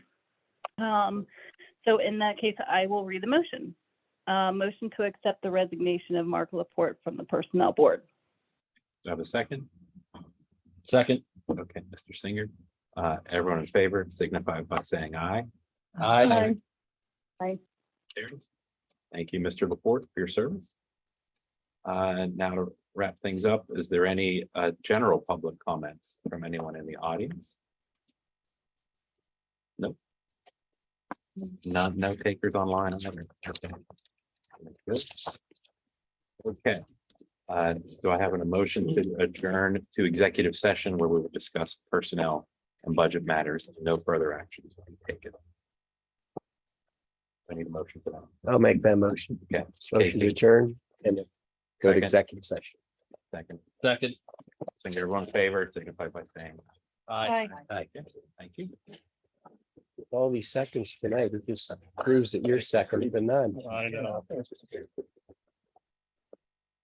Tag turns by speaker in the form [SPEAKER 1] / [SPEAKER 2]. [SPEAKER 1] Um, so in that case, I will read the motion. Uh, motion to accept the resignation of Mark Laporte from the Personnel Board.
[SPEAKER 2] Do I have a second?
[SPEAKER 3] Second.
[SPEAKER 2] Okay, Mr. Singer. Uh, everyone in favor signify by saying aye.
[SPEAKER 3] Aye.
[SPEAKER 2] Carries. Thank you, Mr. Laporte, for your service. Uh, and now to wrap things up, is there any, uh, general public comments from anyone in the audience? Nope. None, no takers online. either. Okay. Good. Okay, uh, do I have an emotion to adjourn to executive session where we will discuss personnel and budget matters? No further actions will be taken. I need a motion for that.
[SPEAKER 3] I'll make that motion.
[SPEAKER 2] Okay.
[SPEAKER 3] Motion to
[SPEAKER 2] Casey,
[SPEAKER 3] adjourn and go to
[SPEAKER 2] Second.
[SPEAKER 3] executive session.
[SPEAKER 2] Second,
[SPEAKER 3] Second.
[SPEAKER 2] Think everyone in favor, signify by saying.
[SPEAKER 1] Aye.
[SPEAKER 2] Aye. Thank you.
[SPEAKER 3] All these seconds tonight, it just proves that you're second to none.
[SPEAKER 2] I know.